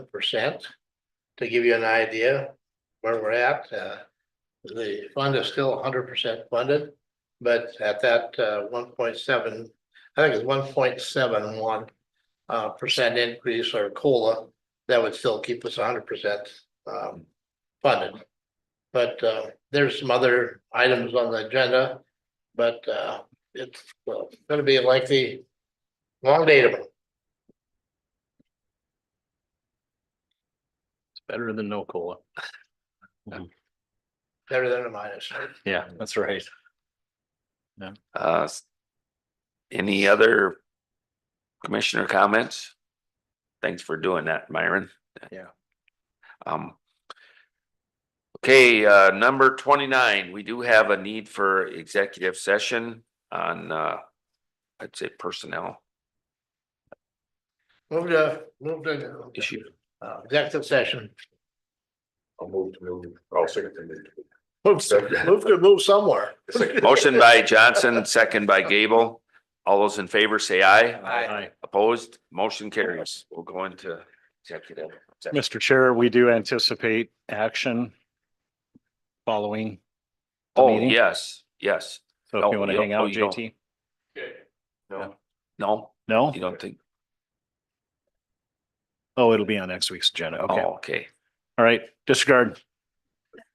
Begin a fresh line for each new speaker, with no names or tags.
percent. To give you an idea where we're at, uh, the fund is still hundred percent funded. But at that, uh, one point seven, I think it's one point seven one, uh, percent increase or COLA. That would still keep us hundred percent, um, funded. But, uh, there's some other items on the agenda, but, uh, it's uh, gonna be like the long day tomorrow.
Better than no cola.
Better than a minus.
Yeah, that's right.
Uh, s- Any other commissioner comments? Thanks for doing that, Myron.
Yeah.
Um. Okay, uh, number twenty-nine, we do have a need for executive session on, uh, I'd say personnel
Move to, move to
issue.
uh, executive session.
I'll move to move, I'll second the move.
Move,
Second.
move to move somewhere.
Second.
Motion by Johnson, second by Gable. All those in favor say aye.
Aye.
Opposed, motion carries. We'll go into executive. session.
Mr. Chair, we do anticipate action following. the
Oh,
meeting.
yes, yes.
So
No,
if you want
you
to
don't-
hang
oh,
out,
you don't.
JT?
No,
No,
No?
you don't think?
Oh, it'll be on next week's agenda. Okay.
Oh,
All
okay.
right. Disregard.